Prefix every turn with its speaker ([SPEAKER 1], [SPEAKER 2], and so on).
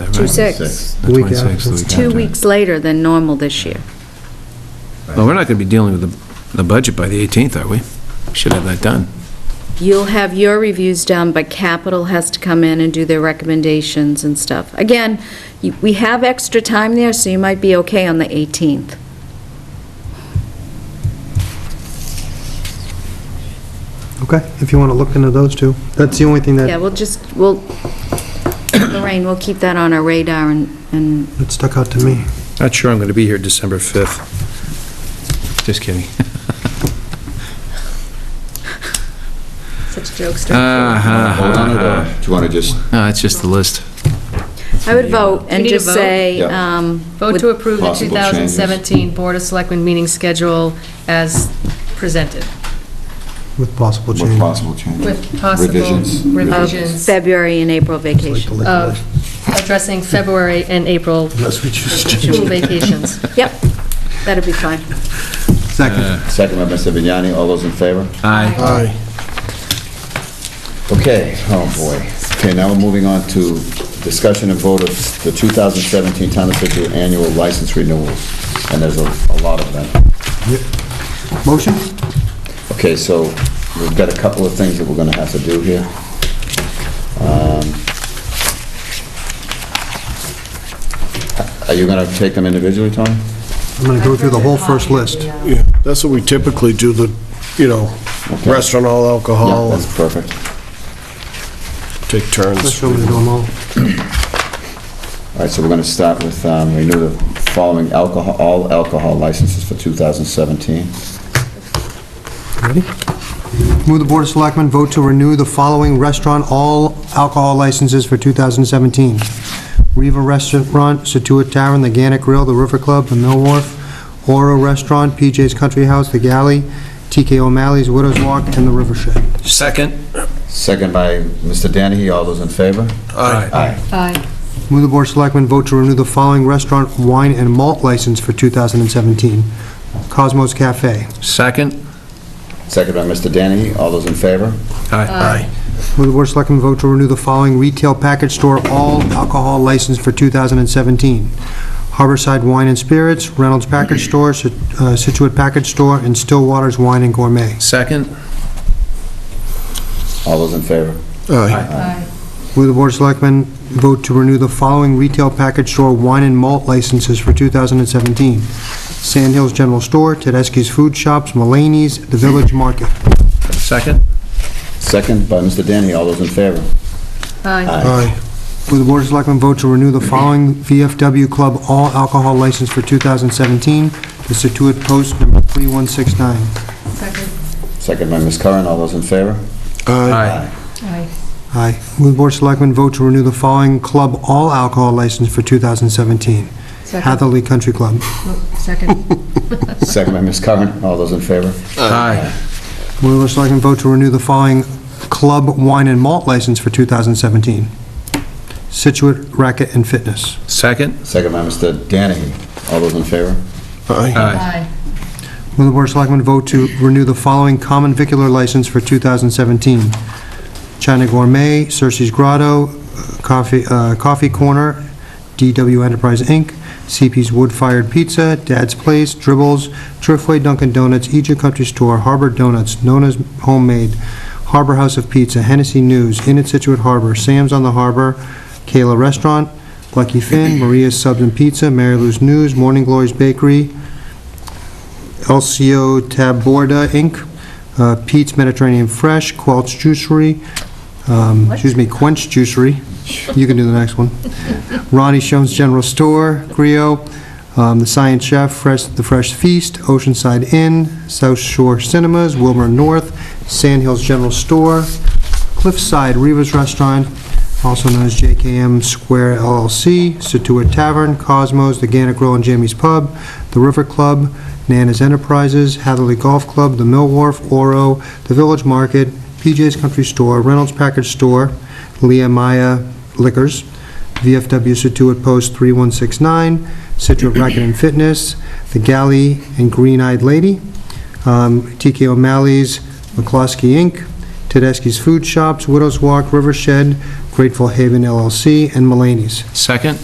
[SPEAKER 1] 26.
[SPEAKER 2] The week
[SPEAKER 3] 26th,
[SPEAKER 2] after.
[SPEAKER 3] the week
[SPEAKER 1] Two
[SPEAKER 3] after.
[SPEAKER 1] weeks later than normal this year.
[SPEAKER 3] Well, we're not going to be dealing with the, the budget by the 18th, are we? We Should have that done.
[SPEAKER 1] You'll have your reviews done, but Capital has to come in and do their recommendations and stuff. Again, you- we have extra time there, so you might be okay on the 18th.
[SPEAKER 2] Okay, if you want to look into those two. That's the only thing
[SPEAKER 1] Yeah,
[SPEAKER 2] that
[SPEAKER 1] we'll just, we'll, Lorraine, we'll keep that on our radar and- and
[SPEAKER 2] that stuck out to me.
[SPEAKER 3] Not sure I'm going to be here December 5th. Just kidding.
[SPEAKER 4] Such jokester.
[SPEAKER 3] Ah,
[SPEAKER 5] Hold on, or do you want to just
[SPEAKER 3] No, it's just the list.
[SPEAKER 1] I would vote
[SPEAKER 4] We
[SPEAKER 1] and
[SPEAKER 4] need to
[SPEAKER 1] just
[SPEAKER 4] vote?
[SPEAKER 1] say,
[SPEAKER 5] Yeah.
[SPEAKER 1] um,
[SPEAKER 4] Vote to approve the
[SPEAKER 5] Possible changes.
[SPEAKER 4] 2017 Board of Selectmen meeting schedule as presented,
[SPEAKER 2] With possible
[SPEAKER 5] with
[SPEAKER 2] change.
[SPEAKER 5] possible changes?
[SPEAKER 4] with possible
[SPEAKER 5] Revisions.
[SPEAKER 1] of
[SPEAKER 4] revisions
[SPEAKER 1] February and April
[SPEAKER 2] Like the
[SPEAKER 1] vacation.
[SPEAKER 2] liquor license.
[SPEAKER 4] of addressing February and April
[SPEAKER 2] Oh. Unless we choose to
[SPEAKER 4] school vacations.
[SPEAKER 1] Yep, that'd be fine.
[SPEAKER 2] Second.
[SPEAKER 5] Uh, Second by Mr. Vignani, all those in favor?
[SPEAKER 3] Aye.
[SPEAKER 2] Aye.
[SPEAKER 5] Okay, oh boy. Okay, now we're moving on to discussion and vote of the 2017 Town of Situate Annual License Renewals, and there's a a lot of them.
[SPEAKER 2] Motion?
[SPEAKER 5] Okay, so we've got a couple of things that we're going to have to do here. Um, Are you going to take them individually, Tony?
[SPEAKER 2] I'm going to go through the whole first list.
[SPEAKER 6] Yeah, that's what we typically do, the, you know, restaurant all
[SPEAKER 5] Yeah,
[SPEAKER 6] alcohol, and
[SPEAKER 5] that's perfect.
[SPEAKER 6] take
[SPEAKER 2] Let's
[SPEAKER 6] turns.
[SPEAKER 2] show them them all.
[SPEAKER 5] All right, so we're going to start with, um, renew the following alcohol, all alcohol licenses for 2017.
[SPEAKER 2] Ready? Move the Board of Selectmen vote to renew the following restaurant all alcohol licenses for 2017. Riva Restaurant, Situate Tavern, The Gannett Grill, The River Club, The Mill Wharf, Oro Restaurant, PJ's Country House, The Galley, TK O'Malley's Widow's Walk, and The River Shed.
[SPEAKER 3] Second?
[SPEAKER 5] Second by Mr. Danahy, all those in favor?
[SPEAKER 3] Aye.
[SPEAKER 4] Aye.
[SPEAKER 2] Move the Board of Selectmen vote to renew the following restaurant wine and malt license for 2017. Cosmos Cafe.
[SPEAKER 3] Second?
[SPEAKER 5] Second by Mr. Danahy, all those in favor?
[SPEAKER 3] Aye.
[SPEAKER 2] Move the Board of Selectmen vote to renew the following retail package store all alcohol license for 2017. Harborside Wine and Spirits, Reynolds Package Store, Sit- uh, Situate Package Store, and Stillwater's Wine and Gourmet.
[SPEAKER 3] Second?
[SPEAKER 5] All those in favor?
[SPEAKER 6] Aye.
[SPEAKER 4] Aye.
[SPEAKER 2] Move the Board of Selectmen vote to renew the following retail package store wine and malt licenses for 2017. Sand Hills General Store, Tedeschi's Food Shops, Mulaney's, The Village Market.
[SPEAKER 3] Second?
[SPEAKER 5] Second by Mr. Danahy, all those in favor?
[SPEAKER 4] Aye.
[SPEAKER 2] Aye. Will the Board of Selectmen vote to renew the following VFW Club all alcohol license for 2017, the Situate Post number 3169?
[SPEAKER 4] Second.
[SPEAKER 5] Second by Ms. Curran, all those in favor?
[SPEAKER 4] Aye.
[SPEAKER 2] Aye. Will the Board of Selectmen vote to renew the following club all alcohol license for 2017?
[SPEAKER 4] Second.
[SPEAKER 2] Hatherley Country Club.
[SPEAKER 4] Second.
[SPEAKER 5] Second by Ms. Curran, all those in favor?
[SPEAKER 3] Aye.
[SPEAKER 2] Will the Board of Selectmen vote to renew the following club wine and malt license for 2017? Situate Racket and Fitness.
[SPEAKER 3] Second?
[SPEAKER 5] Second by Mr. Danahy, all those in favor?
[SPEAKER 3] Uh,
[SPEAKER 6] Aye.
[SPEAKER 4] Aye.
[SPEAKER 2] Will the Board of Selectmen vote to renew the following common vicular license for 2017? China Gourmet, Cersei's Grotto, uh, Coffee uh, Coffee Corner, DW Enterprise, Inc., CP's Wood Fired Pizza, Dad's Place, Dribbles, Driftway Dunkin' Donuts, Egypt Country Store, Harbor Donuts, Nona's Homemade, Harbor House of Pizza, Hennessy News, Inn at Situate Harbor, Sam's on the Harbor, Kayla Restaurant, Lucky Finn, Maria's Subs and Pizza, Mary Lou's News, Morning Glory's Bakery, LCO Taborda Inc., uh, Pete's Mediterranean Fresh, Quelch Juicery, um, excuse me, Quench Juicery, you can do the next one, Ronnie Shones General Store, Griot, um, The Science Chef, Fresh, The Fresh Feast, Oceanside Inn, South Shore Cinemas, Wilmer North, Sand Hills General Store, Cliffside Reva's Restaurant, also known as JKM Square LLC, Situate Tavern, Cosmos, The Gannett Grill and Jamie's Pub, The River Club, Nana's Enterprises, Hatherley Golf Club, The Mill Wharf, Oro, The Village Market, PJ's Country Store, Reynolds Package Store, Leah Maya Liquors, VFW Situate Post 3169, Situate Racket and Fitness, The Galley and Green Eyed Lady, um, TK O'Malley's, McCloskey Inc., Tedeschi's Food Shops, Widow's Walk, Rivershed, Grateful Haven LLC, and Mulaney's.
[SPEAKER 3] Second?